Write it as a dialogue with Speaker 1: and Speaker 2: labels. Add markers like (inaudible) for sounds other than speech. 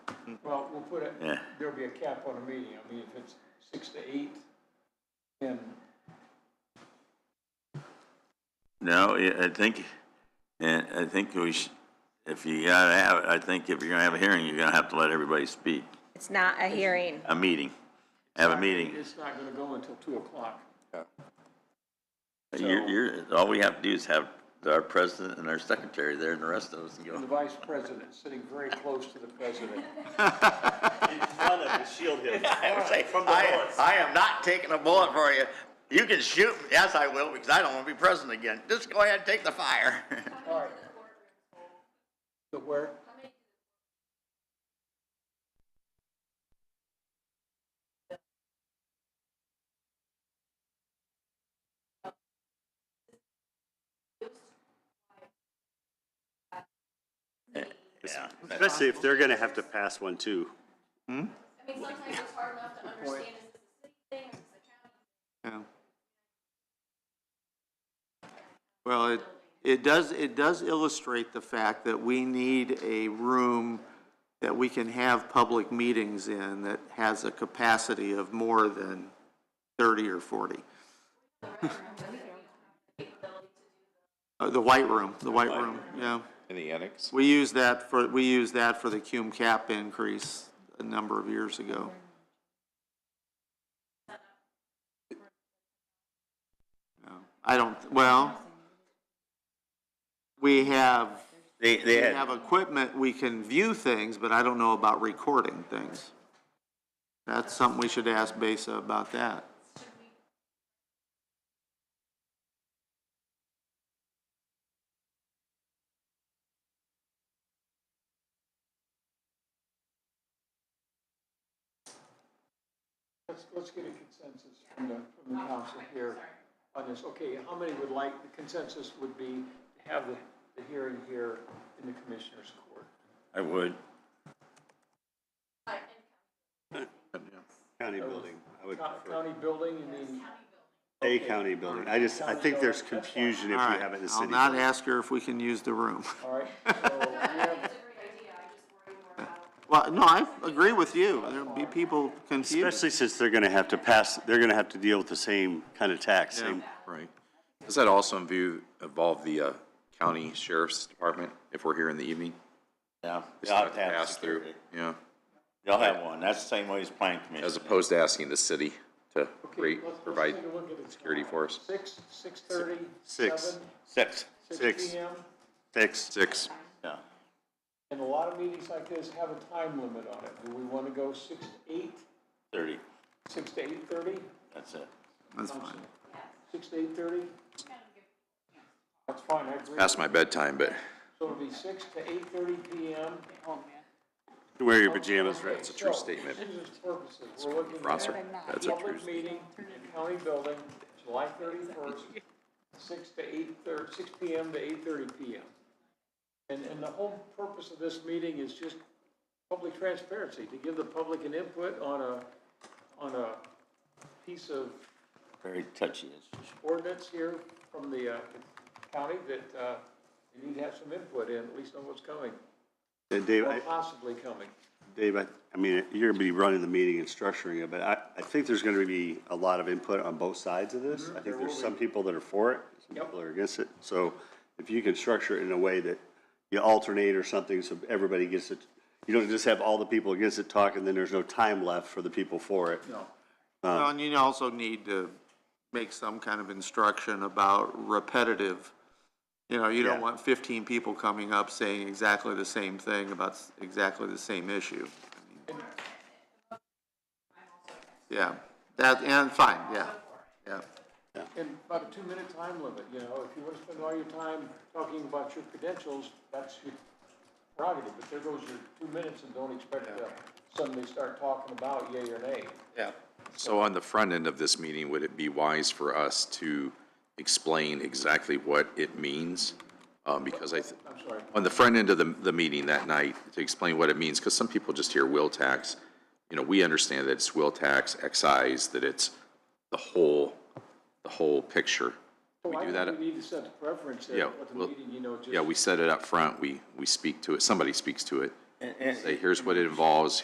Speaker 1: Well, we'll put it,
Speaker 2: Yeah.
Speaker 1: there'll be a cap on a meeting, I mean, if it's six to eight, then,
Speaker 2: No, I I think, and I think we should, if you gotta have, it, I think if you're gonna have a hearing, you're gonna have to let everybody speak,
Speaker 3: It's not a hearing.
Speaker 2: a meeting, have a meeting.
Speaker 1: it's not gonna go until two o'clock.
Speaker 2: You're, you're, all we have to do is have our president and our secretary there and the rest of us can
Speaker 1: And the
Speaker 2: go.
Speaker 1: vice president, sitting very close to the president.
Speaker 4: in front of to shield him
Speaker 2: I would say,
Speaker 4: from the
Speaker 2: I,
Speaker 4: bullets.
Speaker 2: I am not taking a bullet for you. You can shoot, me. yes, I will, because I don't wanna be president again. Just go ahead and take the fire. (laughs)
Speaker 1: All right. The where?
Speaker 2: Yeah.
Speaker 4: Especially if they're gonna have to pass one too.
Speaker 5: I mean, sometimes it's hard enough to understand, is this a city thing, or is this a county?
Speaker 6: Yeah. Well, it, it does, it does illustrate the fact that we need a room that we can have public meetings in that has a capacity of more than thirty or forty. Uh, the white room, the white room, yeah.
Speaker 7: In the annex?
Speaker 6: We used that for, we used that for the cum cap increase a number of years ago. No, I don't, well, we have,
Speaker 2: They,
Speaker 6: we
Speaker 2: they had.
Speaker 6: have equipment, we can view things, but I don't know about recording things. That's something we should ask Besa about that.
Speaker 1: Let's, let's get a consensus from the, from the council here on this. Okay, how many would like, the consensus would be to have the, the hearing here in the commissioner's court?
Speaker 2: I would.
Speaker 4: County building, I would
Speaker 1: Co-
Speaker 4: prefer.
Speaker 1: County building, you mean?
Speaker 4: A county building. I just, I think there's confusion if
Speaker 6: All
Speaker 4: we
Speaker 6: right,
Speaker 4: have it in the
Speaker 6: I'll
Speaker 4: city.
Speaker 6: not ask her if we can use the room.
Speaker 1: All right, so we have,
Speaker 5: It's a great idea, I just worry more about.
Speaker 6: Well, no, I agree with you. There'll be people confused.
Speaker 4: Especially since they're gonna have to pass, they're gonna have to deal with the same kind of tax, same.
Speaker 7: Right. Does that also invo- involve the uh, county sheriff's department if we're here in the evening?
Speaker 2: Yeah.
Speaker 7: Just have to pass through. Yeah,
Speaker 2: They'll have one. That's the same way as planning commission.
Speaker 7: as opposed to asking the city to
Speaker 1: okay,
Speaker 7: rate,
Speaker 1: let's, let's
Speaker 7: provide
Speaker 1: take a look at it.
Speaker 7: security for us.
Speaker 1: Six, six thirty?
Speaker 4: Six.
Speaker 1: seven,
Speaker 2: Six,
Speaker 4: Six.
Speaker 1: Six P M?
Speaker 4: Six.
Speaker 7: Six,
Speaker 2: yeah.
Speaker 1: And a lot of meetings like this have a time limit on it. Do we want to go six to eight,
Speaker 2: Thirty,
Speaker 1: six to eight thirty?
Speaker 2: that's it.
Speaker 6: That's fine.
Speaker 1: Six to eight thirty? That's fine, I agree.
Speaker 7: past my bedtime, but
Speaker 1: So it'll be six to eight thirty P M.
Speaker 4: Wear your pajamas, right?
Speaker 7: it's a true statement.
Speaker 1: Susan's purposes, we're looking at
Speaker 7: Rosser, that's a true.
Speaker 1: public meeting in county building, July thirty-first, six to eight thir- six P M to eight thirty P M. And, and the whole purpose of this meeting is just public transparency, to give the public an input on a, on a piece of
Speaker 2: Very touchy. It's-
Speaker 1: ordinance here from the, uh, county that, uh, you need to have some input in, at least on what's coming,
Speaker 4: And Dave,
Speaker 1: or
Speaker 4: I,
Speaker 1: possibly coming.
Speaker 4: Dave, I, I mean, you're gonna be running the meeting and structuring it, but I, I think there's gonna be a lot of input on both sides of this. I
Speaker 1: Mm-hmm. there
Speaker 4: think there's
Speaker 1: will
Speaker 4: some people that are for it, some
Speaker 1: Yep.
Speaker 4: people are against it. So if you can structure it in a way that you alternate or something, so everybody gets it, you don't just have all the people against it talk, and then there's no time left for the people for it.
Speaker 1: No.
Speaker 6: Well, and you also need to make some kind of instruction about repetitive. You know, you
Speaker 4: Yeah.
Speaker 6: don't want fifteen people coming up saying exactly the same thing about s- exactly the same issue. Yeah, that, and fine, yeah, yeah.
Speaker 1: And about a two-minute time limit, you know, if you want to spend all your time talking about your credentials, that's your prerogative, but there goes your two minutes and don't expect to suddenly start talking about yea or nay.
Speaker 6: Yeah.
Speaker 7: So on the front end of this meeting, would it be wise for us to explain exactly what it means? Um, because I, th-
Speaker 1: I'm sorry,
Speaker 7: on the front end of the, the meeting that night, to explain what it means, because some people just hear will tax. You know, we understand that it's will tax, excise, that it's the whole, the whole picture.
Speaker 1: Well,
Speaker 7: We
Speaker 1: I
Speaker 7: do
Speaker 1: think
Speaker 7: that,
Speaker 1: We need to set the preference there,
Speaker 7: Yeah,
Speaker 1: what the
Speaker 7: well,
Speaker 1: meeting, you know, just.
Speaker 7: yeah, we set it up front, we, we speak to it, somebody speaks to it.
Speaker 2: And, and
Speaker 7: Say, here's what it involves,